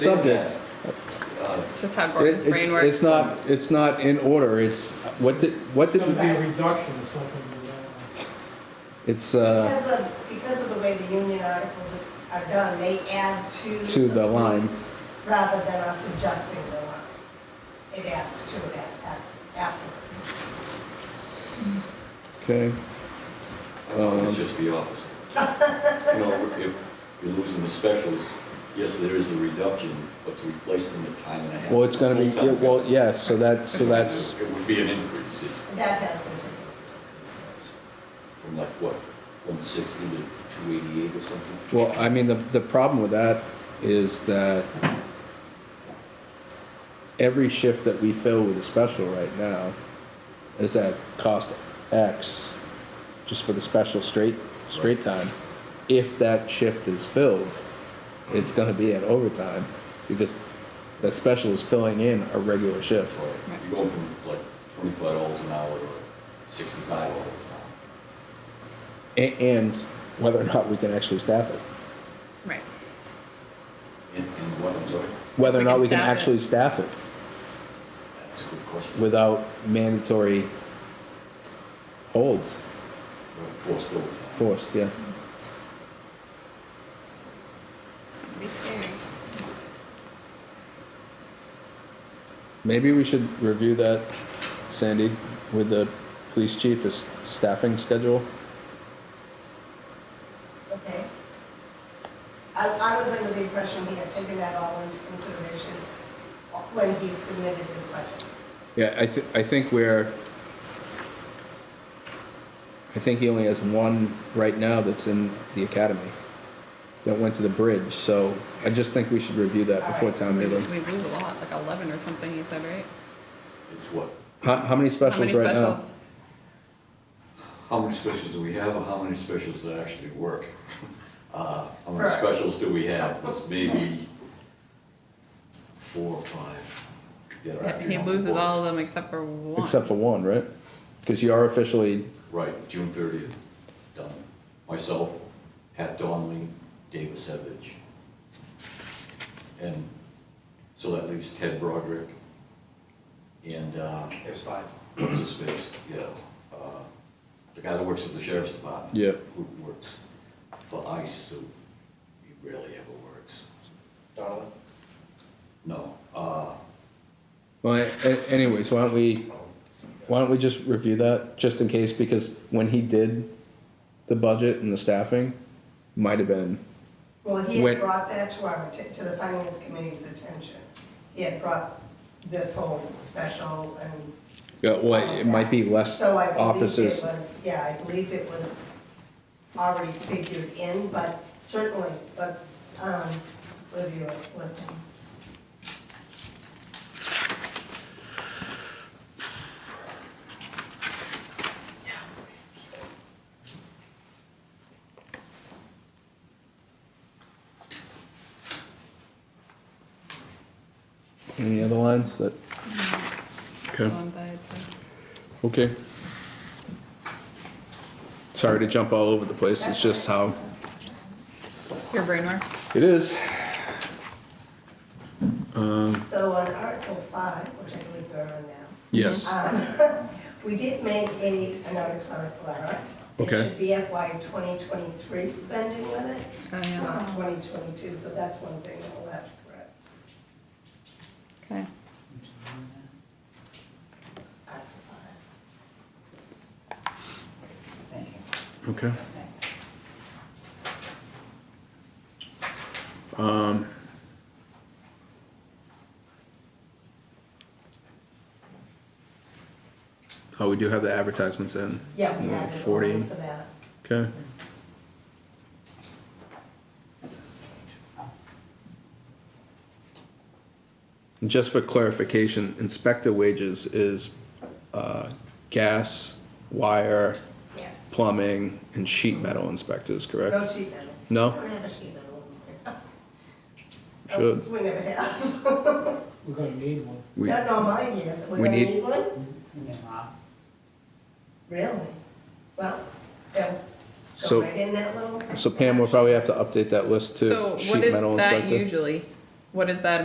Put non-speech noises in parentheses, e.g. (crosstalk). subjects. It's just how Gordon's It- It's, brain works. it's not, it's not in order, it's, what did, what It's gonna be did, a reduction or something. uh, it's, uh, Because of, because of the way the union articles are done, they add to. To the line. piece Rather than us adjusting the line. It adds to it at- at- afterwards. okay, Um, It's just the opposite. You know, if you're losing the specials, yes, there is a reduction, but to replace them at time and a half. well, it's gonna be, yeah, full-time well, guys, yeah, so that, so that's, It would be an increase it's That has been taken into from like what, one sixty to two eighty-eight or something? well, I mean, the, the problem with that is that every shift that we fill with a special right now is at cost X, just for the special straight, straight time. If that shift is filled, it's gonna be at overtime, because that special is filling in a regular shift. Or You're going from like twenty-five dollars an hour to sixty-five dollars an hour. A- and whether or not we can actually staff it. Right. And, and what, I'm sorry, Whether or We not can we can staff it. actually staff it that's a good question. without mandatory holds Forced overtime. forced, yeah. It's gonna be scary. Maybe we should review that, Sandy, with the police chief, his staffing schedule. account. Okay? I, I was under the impression he had taken that all into consideration when he submitted his budget. Yeah, I thi- I think we're, I think he only has one right now that's in the academy that went to the bridge, so I just think we should review that before town We, meeting. we lose a lot, like eleven or something, you said, right? It's what, How, how many How many specials right now? specials? How many specials do we have, or how many specials that actually work? (laughs) Uh, How many Right. specials do we have? There's maybe four or five. that are Yeah, actually He on the loses all of books. them except for one. Except for one, right? Because you are officially, Right, June thirtieth, done. Myself, Pat Donley, David Savage. And so that leaves Ted Broderick and, uh, There's five. what's his face, yeah, uh, the guy that works at the sheriff's department. Yeah. Who works for ICE, who he rarely ever works. Donnelly? No, uh, well, a- anyways, why don't we, why don't we just review that, just in case, because when he did the budget and the staffing, might have been, Well, he When- had brought that to our, atten- to the finance committee's attention. He had brought this whole special and yeah, well, it might be less Oh, So I believe it offices. was, yeah, I believe it was already figured in, but certainly, let's, um, review it with him. Any other lines that, The okay, ones I had said. okay. Sorry to jump all over the place, it's just how Your brain works. it is. Um. So on Article five, which I believe there are now, Yes, um, (laughs) we did make a, another clerical error. Okay. It should be FY twenty twenty-three spending limit, Oh, yeah. not twenty twenty-two, so that's one thing that we'll have to correct. Okay. Article five. okay. Um. Oh, we do have the advertisements in. Yeah, we have it all 40. for that. Okay. And Just for clarification, inspector wages is uh, gas, wire, Yes. plumbing, and sheet metal inspectors, No correct? sheet metal. We No? don't have a sheet metal (laughs) inspector. Should. We never have. (laughs) We're gonna need one. We, Not on mine, yes, we're we gonna need- need one? Cinema. Really? Well, then, go So- right in that little. so Pam will probably have to update that list So to what sheet is metal that inspector. usually? What is that